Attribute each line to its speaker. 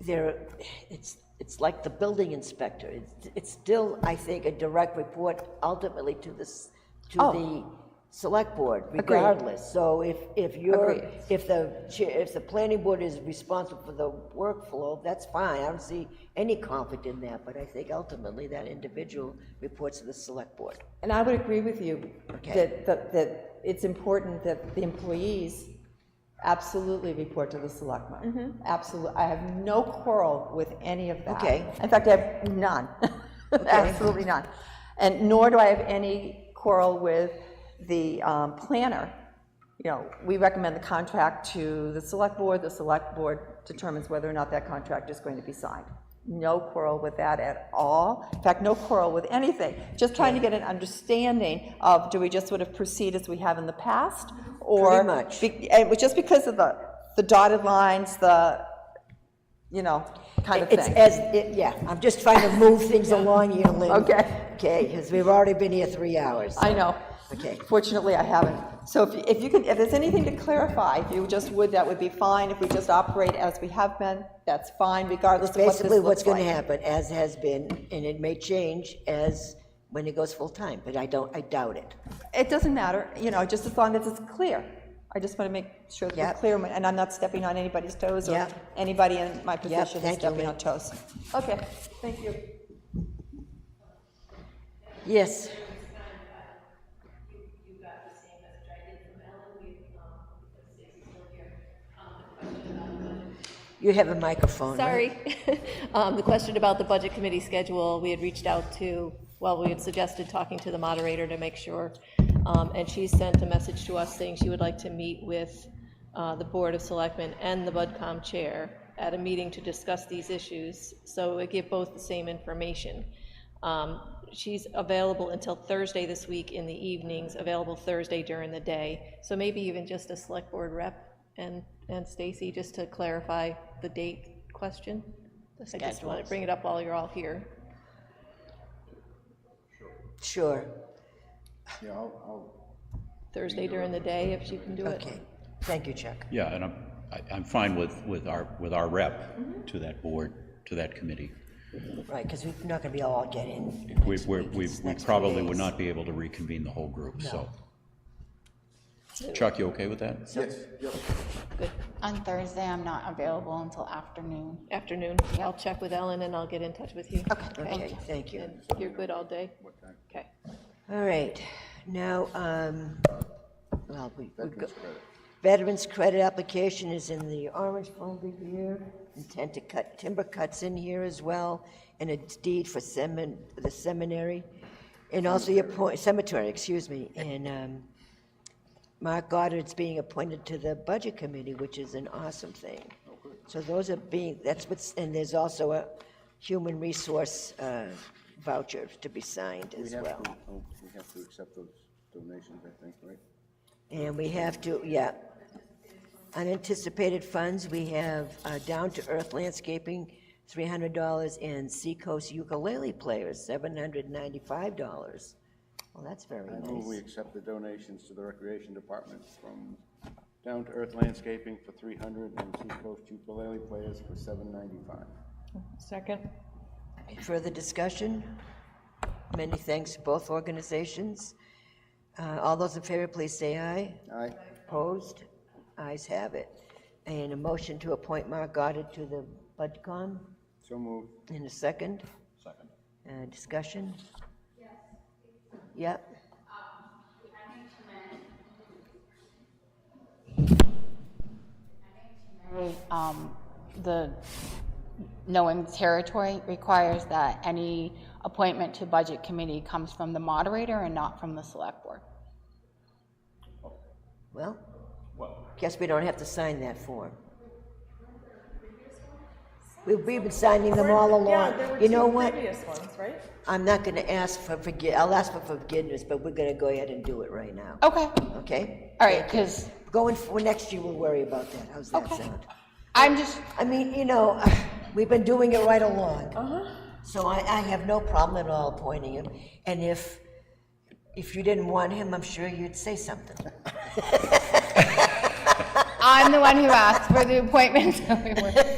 Speaker 1: there, it's, it's like the building inspector. It's- It's still, I think, a direct report ultimately to this, to
Speaker 2: Oh.
Speaker 1: the select board regardless. So if, if you're,
Speaker 2: Agreed.
Speaker 1: if the, chair- if the planning board is responsible for the workflow, that's fine. I don't see any conflict in that, but I think ultimately that individual reports to the select board.
Speaker 2: And I would agree with you
Speaker 1: Okay.
Speaker 2: that, that, that it's important that the employees absolutely report to the selectmen.
Speaker 1: Mm-hmm.
Speaker 2: Absolutely, I have no quarrel with any of that.
Speaker 1: Okay.
Speaker 2: In fact, I have none, absolutely none. And nor do I have any quarrel with the um, planner. You know, we recommend the contract to the select board, the select board determines whether or not that contract is going to be signed. No quarrel with that at all, in fact, no quarrel with anything, just trying to get an understanding of, do we just sort of proceed as we have in the past? or
Speaker 1: Pretty much.
Speaker 2: be- And it was just because of the, the dotted lines, the, you know, kind of
Speaker 1: It's
Speaker 2: thing.
Speaker 1: as, it- yeah, I'm just trying to move things along here, Lynn.
Speaker 2: Okay.
Speaker 1: Okay, because we've already been here three hours.
Speaker 2: I know.
Speaker 1: Okay.
Speaker 2: Fortunately, I haven't. So if, you- if you can, if there's anything to clarify, if you just would, that would be fine. If we just operate as we have been, that's fine, regardless of what this
Speaker 1: basically what's
Speaker 2: looks
Speaker 1: going to
Speaker 2: like.
Speaker 1: happen, as has been, and it may change as, when it goes full-time, but I don't, I doubt it.
Speaker 2: It doesn't matter, you know, just as long as it's clear. I just want to make sure that we're
Speaker 1: Yep.
Speaker 2: clear, and I'm not stepping on anybody's toes or
Speaker 1: Yep.
Speaker 2: anybody in my position is
Speaker 1: thank you,
Speaker 2: stepping
Speaker 1: Lynn.
Speaker 2: on toes. Okay, thank you.
Speaker 1: Yes,
Speaker 3: um,
Speaker 1: you have a microphone, right?
Speaker 3: Sorry. Um, The question about the Budget Committee schedule, we had reached out to, well, we had suggested talking to the moderator to make sure, um, and she sent a message to us saying she would like to meet with uh, the Board of Selectmen and the BudCom Chair at a meeting to discuss these issues, so it would give both the same information. Um, She's available until Thursday this week in the evenings, available Thursday during the day, so maybe even just a Select Board rep and, and Stacy, just to clarify the date question. I just want to bring it up while you're all here.
Speaker 1: Sure,
Speaker 4: Yeah, I'll, I'll
Speaker 3: Thursday during the day, if you can do it.
Speaker 1: okay, thank you, Chuck.
Speaker 5: Yeah, and I'm, I- I'm fine with, with our, with our rep
Speaker 3: Mm-hmm.
Speaker 5: to that board, to that committee.
Speaker 1: Right, because we're not going to be all getting
Speaker 5: We,
Speaker 1: next
Speaker 5: we're-
Speaker 1: week,
Speaker 5: we,
Speaker 1: it's
Speaker 5: we
Speaker 1: next few
Speaker 5: probably would
Speaker 1: days.
Speaker 5: not be able to reconvene the whole group, so. Chuck, you okay with that?
Speaker 6: On Thursday, I'm not available until afternoon.
Speaker 3: Afternoon, I'll check with Ellen and I'll get in touch with you.
Speaker 1: Okay, thank you.
Speaker 3: And You're good all day? Okay.
Speaker 1: All right, now, um, well, we, we go. Veterans credit application is in the orange folder here. Intent to cut, timber cuts in here as well, and a deed for semin, the seminary. And also your point, cemetery, excuse me, and, um, Mark Goddard's being appointed to the budget committee, which is an awesome thing. So those are being, that's what's, and there's also a human resource, uh, voucher to be signed as
Speaker 4: We have
Speaker 1: well.
Speaker 4: to, oh, we have to accept those donations, I think, right?
Speaker 1: And we have to, yeah. Unanticipated funds, we have uh, Down to Earth Landscaping, $300, and Seacoast Ukulele Players, $795. Well, that's very
Speaker 4: I move Oh, we
Speaker 1: nice.
Speaker 4: accept the donations to the Recreation Department from Down to Earth Landscaping for three hundred and Seacoast Ukulele Players for seven ninety-five.
Speaker 3: Second?
Speaker 1: Further discussion? Many thanks to both organizations. Uh, All those in favor, please say aye.
Speaker 4: Aye,
Speaker 1: Opposed? Ayes have it. And a motion to appoint Mark Goddard to the BudCom
Speaker 4: so moved.
Speaker 1: in a second?
Speaker 5: Second.
Speaker 1: Uh, Discussion? Yep.
Speaker 6: Um, The knowing territory requires that any appointment to Budget Committee comes from the moderator and not from the Select Board.
Speaker 1: Well, guess we don't have to sign that form. We've we've been signing them all along. You know what? I'm not going to ask for forgi, I'll ask for forgiveness, but we're going to go ahead and do it right now,
Speaker 6: Okay,
Speaker 1: okay?
Speaker 6: Oh. all right, because
Speaker 1: Going, for next year, we'll worry about that. How's that sound?
Speaker 6: I'm just,
Speaker 1: I mean, you know, we've been doing it right along. So I, I have no problem at all appointing him. And if, if you didn't want him, I'm sure you'd say something.
Speaker 6: I'm the one who asked for the appointment, so we were-